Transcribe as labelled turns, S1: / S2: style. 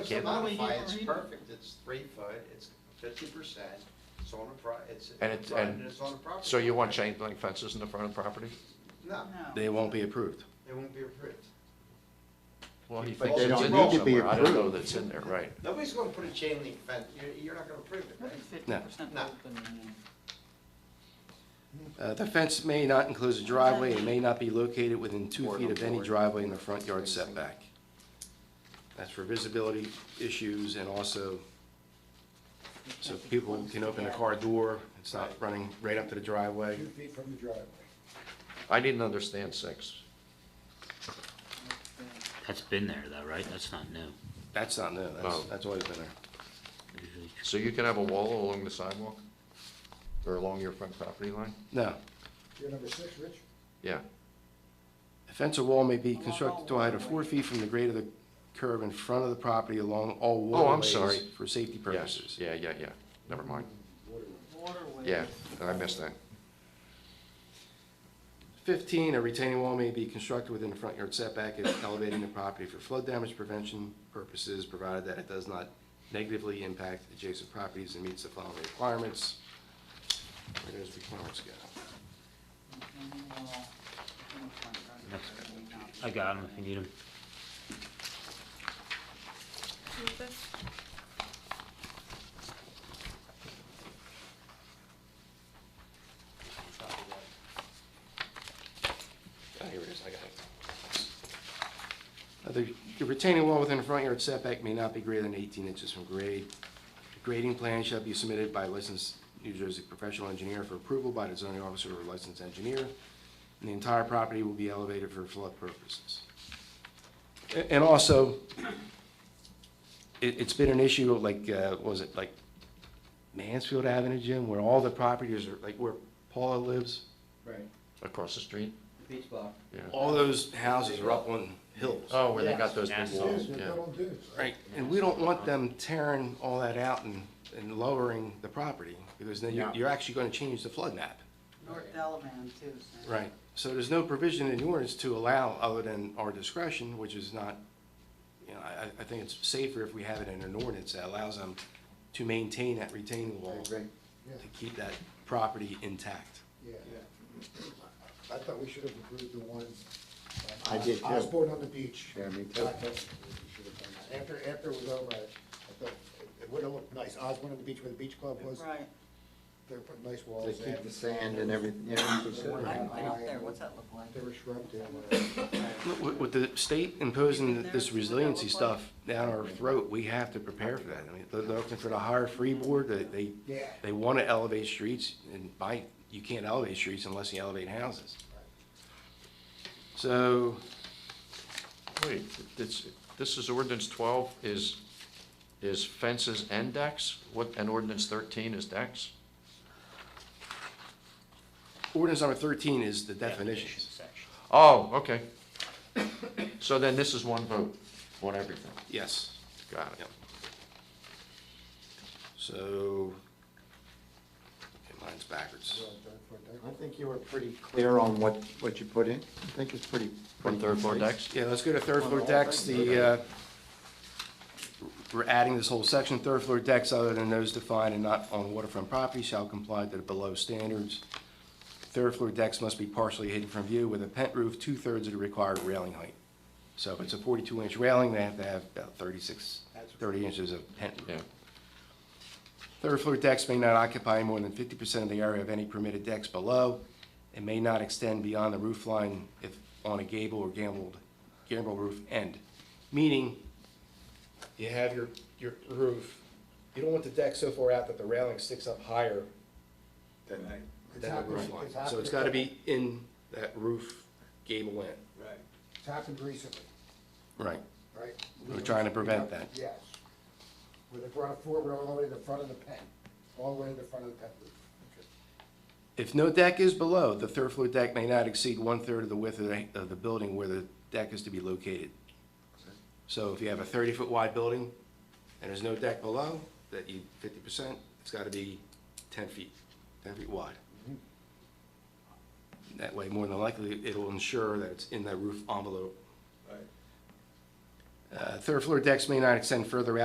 S1: So
S2: can't
S1: not only
S2: modify,
S1: you
S2: it's
S1: read-
S2: perfect, it's three foot, it's fifty percent, it's on a pro, it's,
S3: And it's,
S2: private,
S3: and,
S2: it's on a property.
S3: so you want chain link fences in the front of the property?
S2: No,
S4: They won't be approved.
S2: it won't be approved.
S3: Well, he
S2: But
S3: thinks
S2: they
S3: it's
S2: don't
S3: in
S2: need
S3: there
S2: to
S4: be
S3: somewhere, I don't know
S4: approved.
S3: that's in there, right.
S2: Nobody's gonna put a chain link fence, you're, you're not gonna approve it, right?
S1: Fifty percent
S2: No.
S1: open. and-
S4: Uh, The fence may not enclose a driveway and may not be located within two
S3: Or
S4: feet of any
S3: board.
S4: driveway in the front yard setback. That's for visibility issues and also so people can open the car door, it's not running right up to the driveway.
S5: two feet from the driveway.
S3: I didn't understand six.
S6: That's been there though, right? That's not new.
S4: That's not new, that's,
S3: Oh.
S4: that's always been there.
S6: Usually
S3: So you can have a wall along the sidewalk? Or along your front property line?
S4: No,
S5: You're number six, Rich?
S3: Yeah,
S4: a fence or wall may be constructed to a height of four feet from the grade of the curb in front of the property along all
S3: Oh, I'm
S4: waterways
S3: sorry.
S4: for safety
S3: yes,
S4: purposes.
S3: yeah, yeah, yeah, never mind.
S1: Waterways.
S3: Yeah, I missed that.
S4: 15, a retaining wall may be constructed within the front yard setback and elevating the property for flood damage prevention purposes, provided that it does not negatively impact adjacent properties and meets the following requirements. Where those requirements go?
S1: Retaining wall, in front yard, may not be-
S6: I got them if you need them.
S4: Oh, here it is, I got it. Uh, The the retaining wall within the front yard setback may not be greater than 18 inches from grade. The Grading plan shall be submitted by a licensed New Jersey professional engineer for approval by the zoning officer or licensed engineer, and the entire property will be elevated for flood purposes. A- And also, it, it's been an issue of like, uh, what was it like Mansfield Avenue, Jim, where all the properties are, like where Paula lives?
S5: Right.
S3: Across the street?
S7: Beach block.
S3: Yeah.
S4: All those houses are up on hills.
S3: Oh, where they got those big
S6: Yes.
S3: walls,
S5: Yes, they're
S3: yeah.
S5: built on dunes.
S4: Right, and we don't want them tearing all that out and, and lowering the property, because then you're,
S3: Yeah.
S4: you're actually gonna change the flood map.
S1: North Delavan too. so-
S4: Right. So there's no provision in the ordinance to allow other than our discretion, which is not, you know, I, I- I think it's safer if we have it in an ordinance that allows them to maintain that retaining wall, to
S5: Yeah,
S4: keep that property intact.
S5: yeah. I thought we should have approved the one. uh,
S8: I did, too.
S5: Osborne on the beach.
S8: Yeah, me too.
S5: I thought we should have done that. After, after it was over, I I thought it- it would have looked nice. Osborne on the beach where the beach club was,
S1: Right.
S5: they put nice
S8: They
S5: walls in.
S8: keep the sand and everything, you know, it's
S1: I
S8: good.
S1: went out there, what's that look like?
S5: There were shrubs in there. uh,
S4: Look, With, with the state imposing this resiliency stuff down our throat, we have to prepare for that. I mean, they're looking for the higher freeboard, they, they,
S5: Yeah.
S4: they want to elevate streets, and by, you can't elevate streets unless you elevate houses. So,
S3: Wait, this, this is ordinance twelve is, is fences and decks? What, and ordinance thirteen is decks?
S4: ordinance number thirteen is the definitions.
S6: section.
S3: Oh, okay. So then this is one vote on everything.
S4: Yes,
S3: Got it.
S4: Yep. so, okay, mine's backwards.
S8: I think you were pretty clear on what, what you put in. I think it's pretty.
S3: One third floor
S8: decks.
S3: decks?
S4: Yeah, let's go to third floor decks, the, uh, we're adding this whole section, third floor decks other than those defined and not on waterfront property shall comply to the below standards. Third floor decks must be partially hidden from view with a pent roof two-thirds of the required railing height. So if it's a forty-two inch railing, they have to have about 36, 30 inches of pent roof.
S3: Yeah.
S4: Third floor decks may not occupy more than fifty percent of the area of any permitted decks below, and may not extend beyond the roof line if on a gable or gambled, gambrel roof end. Meaning, you have your, your roof, you don't want the deck so far out that the railing sticks up higher
S5: It's
S4: than the
S5: happened,
S4: roof
S5: it's
S4: line.
S5: happened-
S4: So it's gotta be in that roof gable end.
S2: Right.
S5: It's happened recently,
S4: Right.
S5: right?
S4: We're trying to prevent that.
S5: Yes. Where they brought it forward all the way to the front of the pen, all the way to the front of the pen roof.
S4: If no deck is below, the third floor deck may not exceed one-third of the width of the, of the building where the deck is to be located. So if you have a thirty-foot wide building and there's no deck below, that you, fifty percent, it's gotta be ten feet, ten feet wide. That way, more than likely, it'll ensure that it's in that roof envelope.
S2: Right.
S4: Uh, third floor decks may not extend further out.